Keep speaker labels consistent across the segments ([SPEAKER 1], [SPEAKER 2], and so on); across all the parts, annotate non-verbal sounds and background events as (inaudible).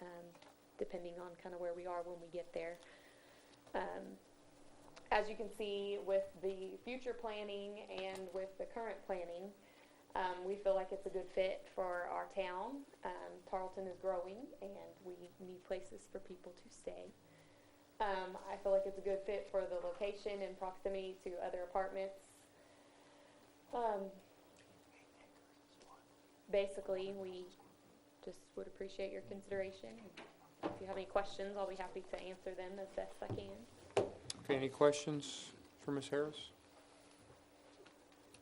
[SPEAKER 1] um, depending on kind of where we are when we get there. Um, as you can see with the future planning and with the current planning, um, we feel like it's a good fit for our town. Um, Tarleton is growing and we need places for people to stay. Um, I feel like it's a good fit for the location and proximity to other apartments. Um, basically, we just would appreciate your consideration. If you have any questions, I'll be happy to answer them as best I can.
[SPEAKER 2] Okay, any questions for Ms. Harris?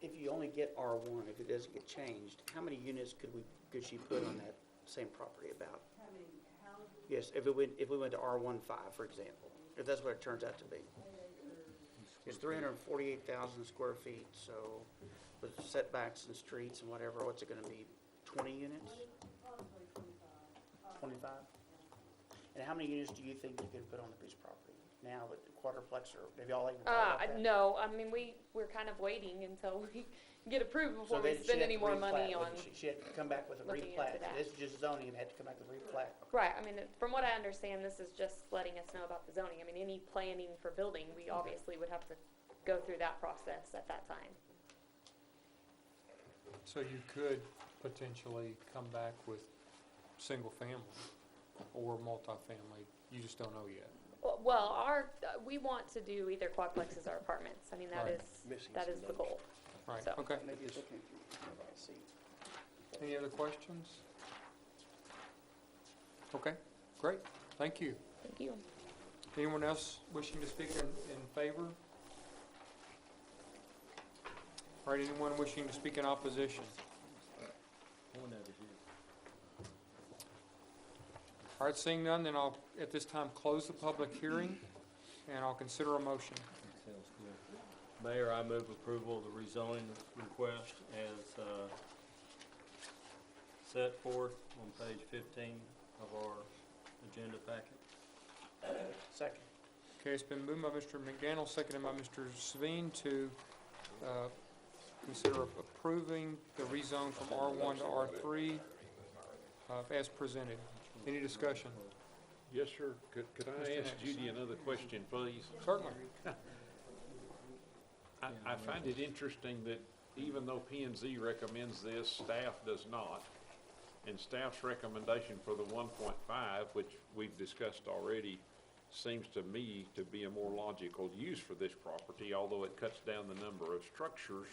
[SPEAKER 3] If you only get R1, if it doesn't get changed, how many units could we, could she put on that same property about?
[SPEAKER 4] How many, how
[SPEAKER 3] Yes, if we went, if we went to R15, for example, if that's what it turns out to be. It's 348,000 square feet, so with setbacks and streets and whatever, what's it going to be, 20 units?
[SPEAKER 4] probably twenty-five,
[SPEAKER 3] 25? And how many units do you think you could put on the piece of property now with the quadruplex or, have y'all even
[SPEAKER 1] Uh,
[SPEAKER 3] thought about that?
[SPEAKER 1] no, I mean, we, we're kind of waiting until we (laughs) get approved
[SPEAKER 3] So
[SPEAKER 1] before we
[SPEAKER 3] then she
[SPEAKER 1] spend
[SPEAKER 3] had
[SPEAKER 1] any
[SPEAKER 3] to
[SPEAKER 1] more
[SPEAKER 3] replat,
[SPEAKER 1] money on.
[SPEAKER 3] wouldn't she? She had to come back with a
[SPEAKER 1] looking into
[SPEAKER 3] replat.
[SPEAKER 1] that.
[SPEAKER 3] This is just zoning, it had to come back with a replat.
[SPEAKER 1] Right, I mean, it- from what I understand, this is just letting us know about the zoning. I mean, any planning for building, we obviously would have to go through that process at that time.
[SPEAKER 2] So you could potentially come back with single-family or multifamily, you just don't know yet.
[SPEAKER 1] Well- Well, our, uh, we want to do either quadplexes or apartments. I mean, that
[SPEAKER 2] Right.
[SPEAKER 1] is, that is the goal.
[SPEAKER 2] Right,
[SPEAKER 1] So-
[SPEAKER 2] okay.
[SPEAKER 3] Maybe it's looking through, I see.
[SPEAKER 2] Any other questions? Okay, great, thank you.
[SPEAKER 1] Thank you.
[SPEAKER 2] Anyone else wishing to speak in, in favor? All right, anyone wishing to speak in opposition? All right, seeing none, then I'll, at this time, close the public hearing, and I'll consider a motion.
[SPEAKER 5] Sounds good. Mayor, I move approval of the rezoning request as uh, set forth on page 15 of our agenda packet.
[SPEAKER 3] Second.
[SPEAKER 2] Okay, it's been moved by Mr. McDaniel, seconded by Mr. Sveen to uh, consider approving the rezone from R1 to R3 uh, as presented. Any discussion?
[SPEAKER 6] Yes, sir. Could, could
[SPEAKER 2] Mr.
[SPEAKER 6] I ask
[SPEAKER 2] Anderson.
[SPEAKER 6] Judy another question, please?
[SPEAKER 2] Certainly.
[SPEAKER 6] I, I find it interesting that even though P and Z recommends this, staff does not. And staff's recommendation for the one point five, which we've discussed already, seems to me to be a more logical use for this property, although it cuts down the number of structures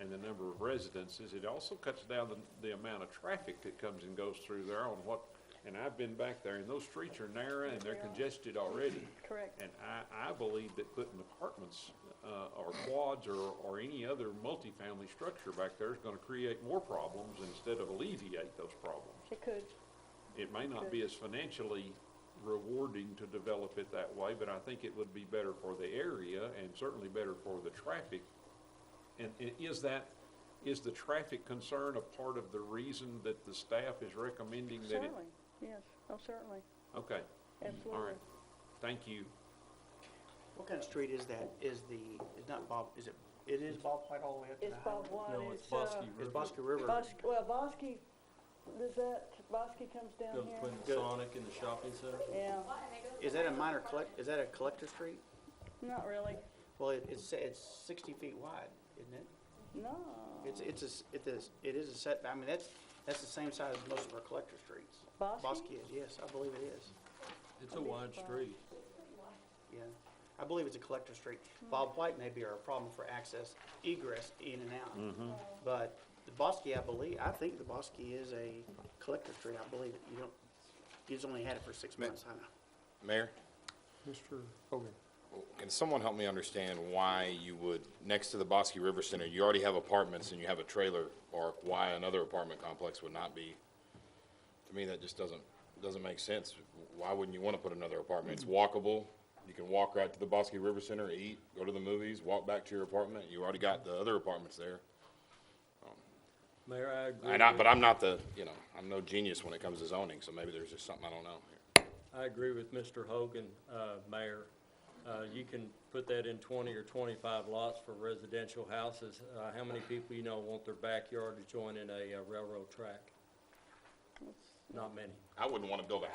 [SPEAKER 6] and the number of residences. It also cuts down the, the amount of traffic that comes and goes through there on what, and I've been back there, and those streets are narrow and they're congested already.
[SPEAKER 1] Correct.
[SPEAKER 6] And I, I believe that putting apartments, uh, or quads or, or any other multifamily structure back there is gonna create more problems instead of alleviate those problems.
[SPEAKER 1] It could.
[SPEAKER 6] It may not be as financially rewarding to develop it that way, but I think it would be better for the area and certainly better for the traffic. And, and is that, is the traffic concern a part of the reason that the staff is recommending that it?
[SPEAKER 7] Certainly, yes, oh, certainly,
[SPEAKER 6] Okay, all
[SPEAKER 7] absolutely.
[SPEAKER 6] right. Thank you.
[SPEAKER 3] What kind of street is that? Is the, is not Bob, is it, it is Bob White all the way up to the
[SPEAKER 7] It's
[SPEAKER 3] highway?
[SPEAKER 7] Bob White,
[SPEAKER 5] No, it's
[SPEAKER 7] it's, uh,
[SPEAKER 5] Bosky
[SPEAKER 3] Is
[SPEAKER 5] River.
[SPEAKER 3] Bosque River?
[SPEAKER 7] Bos- well, Bosky, does that, Bosky comes down
[SPEAKER 5] Goes
[SPEAKER 7] here?
[SPEAKER 5] between the Sonic and the shopping center.
[SPEAKER 7] Yeah,
[SPEAKER 3] Is that a minor collect, is that a collector street?
[SPEAKER 7] not really,
[SPEAKER 3] Well, it, it's, it's sixty feet wide, isn't it?
[SPEAKER 7] no.
[SPEAKER 3] It's, it's a, s- it is, it is a set, I mean, that's, that's the same size as most of our collector streets.
[SPEAKER 7] Bosque?
[SPEAKER 3] Bosque is, yes, I believe it is,
[SPEAKER 5] It's a wide street.
[SPEAKER 3] yeah. I believe it's a collector street. Bob White may be our problem for access, egress, in and out. But the Bosque, I believe, I think the Bosque is a collector street, I believe it. You don't, he's only had it for six
[SPEAKER 8] Ma-
[SPEAKER 3] months, I know.
[SPEAKER 8] Mayor,
[SPEAKER 2] Mr. Hogan.
[SPEAKER 8] can someone help me understand why you would, next to the Bosque River Center, you already have apartments and you have a trailer park, why another apartment complex would not be? To me, that just doesn't, doesn't make sense. Why wouldn't you want to put another apartment? It's walkable. You can walk right to the Bosque River Center, eat, go to the movies, walk back to your apartment. You already got the other apartments there.
[SPEAKER 5] Mayor, I agree.
[SPEAKER 8] And I,
[SPEAKER 5] with-
[SPEAKER 8] but I'm not the, you know, I'm no genius when it comes to zoning, so maybe there's just something I don't know here.
[SPEAKER 5] I agree with Mr. Hogan, uh, Mayor. Uh, You can put that in 20 or 25 lots for residential houses. Uh, How many people you know want their backyard to join in a uh, railroad track? Not many.
[SPEAKER 8] I wouldn't want to build a house